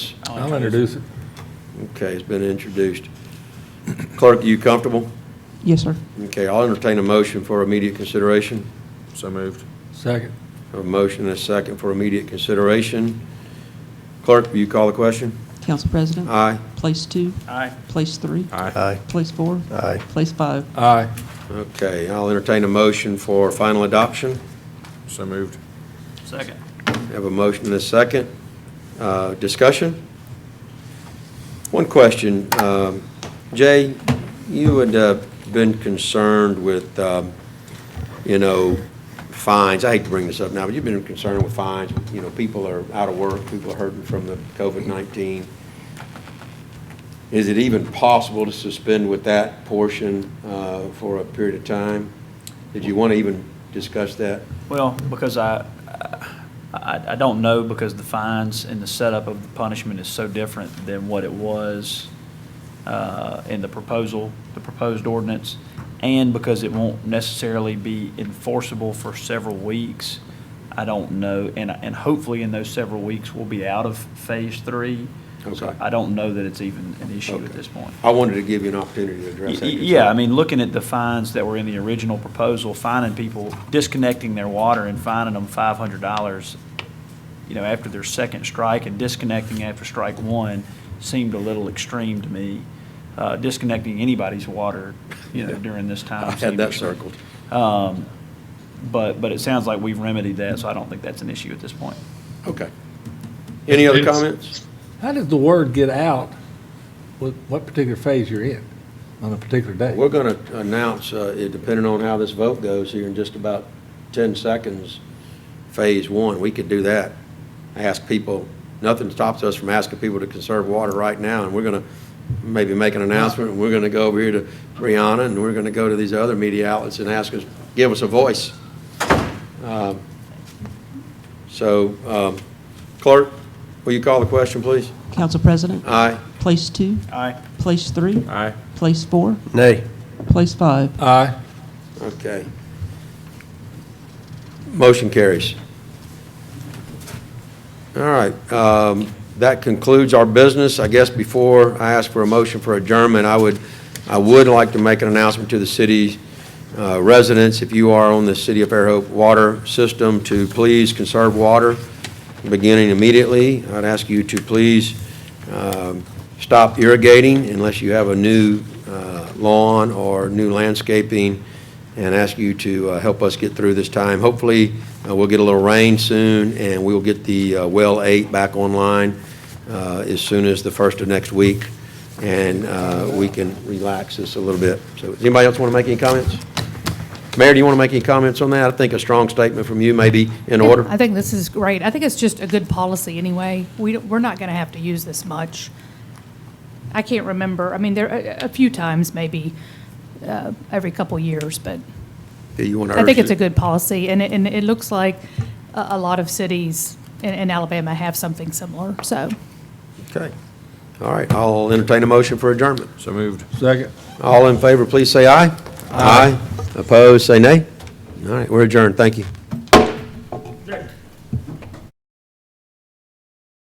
I'll introduce it. Okay, it's been introduced. Clerk, are you comfortable? Yes, sir. Okay, I'll entertain a motion for immediate consideration. So moved. Second. A motion and a second for immediate consideration. Clerk, will you call the question? Council President? Aye. Place two, Aye. place three, Aye. place four, Aye. place five. Aye. Okay, I'll entertain a motion for final adoption. So moved. Second. Have a motion and a second. Uh, Discussion? One question. um, Jay, you had uh, been concerned with, um, you know, fines. I hate to bring this up now, but you've been concerned with fines. You know, people are out of work, people are hurting from the COVID-19. Is it even possible to suspend with that portion uh, for a period of time? Did you want to even discuss that? Well, because I, I, I don't know, because the fines and the setup of the punishment is so different than what it was uh, in the proposal, the proposed ordinance, and because it won't necessarily be enforceable for several weeks, I don't know, and, and hopefully in those several weeks, we'll be out of phase three. So Okay. I don't know that it's even an issue at Okay. this point. I wanted to give you an opportunity to Y- address that. Yeah, I mean, looking at the fines that were in the original proposal, finding people disconnecting their water and fining them five hundred dollars, you know, after their second strike and disconnecting after strike one seemed a little extreme to me. Uh, disconnecting anybody's water, you know, during this time. I had seemed that extreme. circled. Um, but, but it sounds like we've remedied that, so I don't think that's an issue at this point. Okay. Any other It's- comments? How does the word get out with what particular phase you're in on a particular day? We're going to announce, uh, it depending on how this vote goes here in just about 10 seconds, Phase One. We could do that. Ask people, nothing stops us from asking people to conserve water right now, and we're going to maybe make an announcement, and we're going to go over here to Brianna, and we're going to go to these other media outlets and ask us, give us a voice. Um, So, um, clerk, will you call the question, please? Council President? Aye. Place two, Aye. place three, Aye. place four, Nay. place five. Aye. Okay. Motion carries. All right, um, that concludes our business. I guess before I ask for a motion for adjournment, I would, I would like to make an announcement to the city uh, residents, if you are on the City of Fairhope water system, to please conserve water beginning immediately. I'd ask you to please um, stop irrigating unless you have a new uh, lawn or new landscaping, and ask you to uh, help us get through this time. Hopefully, uh, we'll get a little rain soon, and we'll get the uh, well eight back online uh, as soon as the first of next week, and uh, we can relax this a little bit. So, does anybody else want to make any comments? Mayor, do you want to make any comments on that? I think a strong statement from you may be in Yeah, order. I think this is great. I think it's just a good policy anyway. We, don't- we're not going to have to use this much. I can't remember, I mean, there, a a few times maybe, uh, every couple years, but Do you want to I think urge it's a it? good policy. And it, and it looks like a, a lot of cities in, in Alabama have something similar, so. Okay. All right, I'll entertain a motion for adjournment. So moved. Second. All in favor, please say aye. Aye. Opposed, say nay. All right, we're adjourned. Thank you.